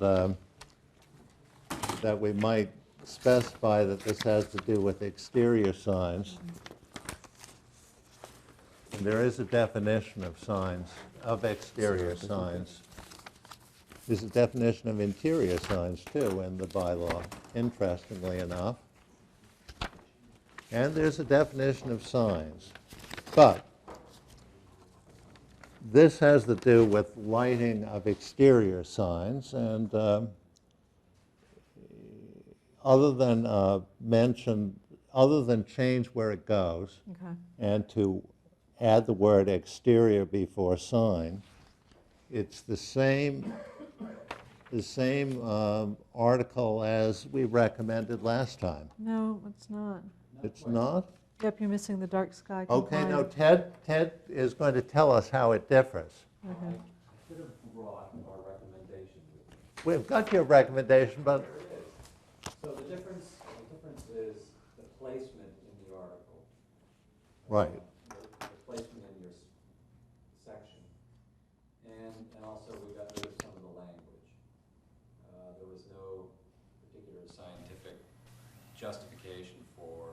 the, um, that we might specify that this has to do with exterior signs. And there is a definition of signs, of exterior signs. There's a definition of interior signs too in the bylaw, interestingly enough. And there's a definition of signs. But this has to do with lighting of exterior signs, and um, other than uh, mention, other than change where it goes, Okay. and to add the word exterior before sign, it's the same, the same um, article as we recommended last time. No, it's not. It's not? Yep, you're missing the dark sky Okay, now compliant. Ted, Ted is going to tell us how it differs. Okay. Should have brought our recommendation. with me. We've got your recommendation, but There it is. So the difference, the difference is the placement in the article. Right. The the placement in your s- section. And, and also we got rid of some of the language. Uh, There was no particular scientific justification for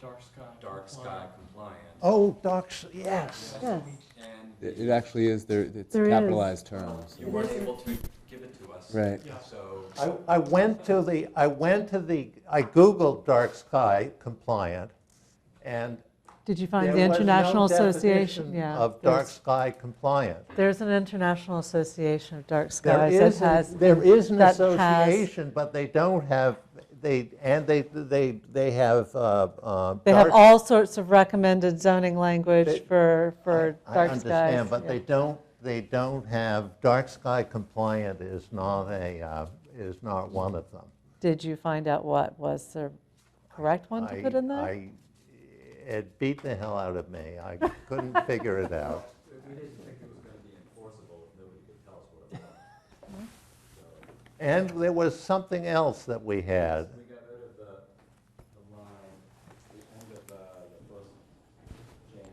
Dark sky. dark sky compliance. Oh, docs, yes. Yes. And It, it actually is there. It's There is. capitalized terms. you weren't able to give it to us. Right. Yeah. So. I, I went to the, I went to the, I Googled dark sky compliant, and Did you there find the was no International Association? definition Yeah. of dark there's- sky compliant. There's an International Association of Dark There Skies that is, an- has, there is an that has- association, but they don't have, they, and they, they, they have, uh, uh. they have dark- all sorts of recommended zoning They- language for, for I- dark I skies. understand, but yeah. they don't, they don't have, dark sky compliant is not a, uh, is not one of them. Did you find out what was the correct one to I- put in there? I- It beat the hell out of me. I couldn't figure it out. We didn't think it was gonna be enforceable, nobody could tell us what it was. And there was something else that we had. We got rid of the, the line, the end of the, the first change.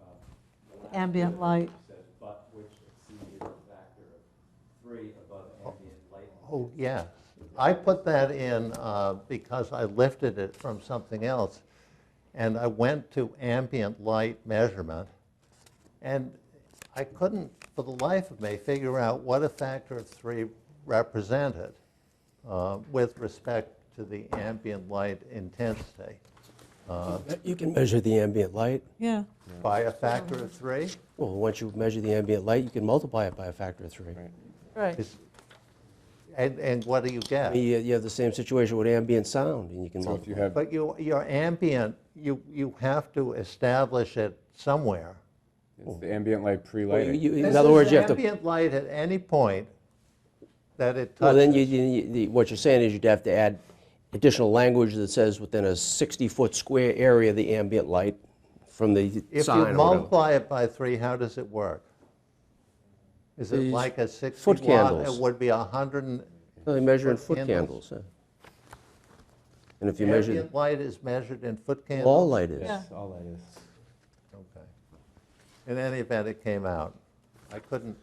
uh, the last Ambient bit light. Says, but which exceeded a factor of three above ambient light. Oh, yes. I put that in uh, because I lifted it from something else. And I went to ambient light measurement. And I couldn't, for the life of me, figure out what a factor of three represented uh, with respect to the ambient light intensity. You can measure the ambient light. Yeah, By a factor of three? Well, once you measure the ambient light, you can multiply it by a factor of three. right. Is- And, and what do you I get? mean, You you have the same situation with ambient sound, and you can So if you multiply. have But you, your ambient, you, you have to establish it somewhere. it's the ambient light Well, pre-lighting, you- you- This In other is words, you have to, Ambient light at any point that it well, then you, touches. you- you- the- what you're saying is you'd have to add additional language that says within a 60-foot square area, the ambient light from the If you sign or whatever. multiply it by three, how does it work? Is it These like a 60 foot watt? It candles. would be 100, and- No, They measure in foot foot candles. candles. yeah. And if you measure, ambient light is measured in foot candles? all light is. Yeah. all that is. Okay. In any event, it came out. I couldn't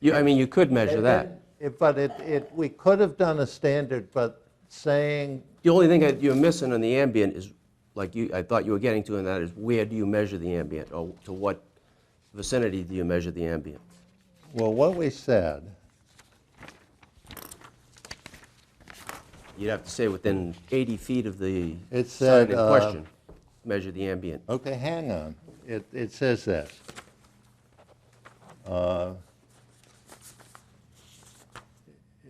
You- I mean, you could measure It that. didn't- it- But it, it, we could have done a standard, but saying, The only thing that you're missing on the ambient is, like you, I thought you were getting to in that, is where do you measure the ambient, or to what vicinity do you measure the ambient? well, what we said, You'd have to say within 80 feet of the It sign said, in uh, question, measure the ambient. okay, hang on, it, it says this. Uh,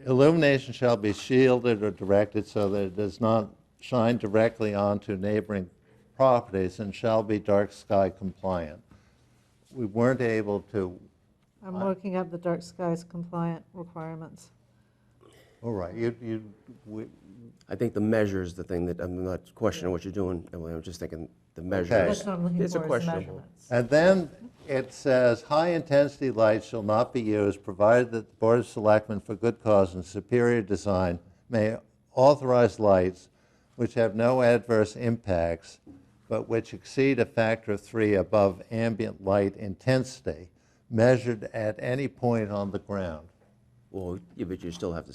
Illumination shall be shielded or directed so that it does not shine directly onto neighboring properties and shall be dark sky compliant. We weren't able to, I'm looking up the dark skies compliant requirements. all right, you, you, we, I think the measure is the thing that, I'm not questioning what you're doing, Emily, I'm just thinking the measure Okay. is. That's what I'm looking for, is It's a questionable. measurements. And then it says, "High-intensity lights shall not be used, provided that the Board of Selectmen, for good cause and superior design, may authorize lights which have no adverse impacts, but which exceed a factor of three above ambient light intensity, measured at any point on the ground." Well, yeah, but you still have to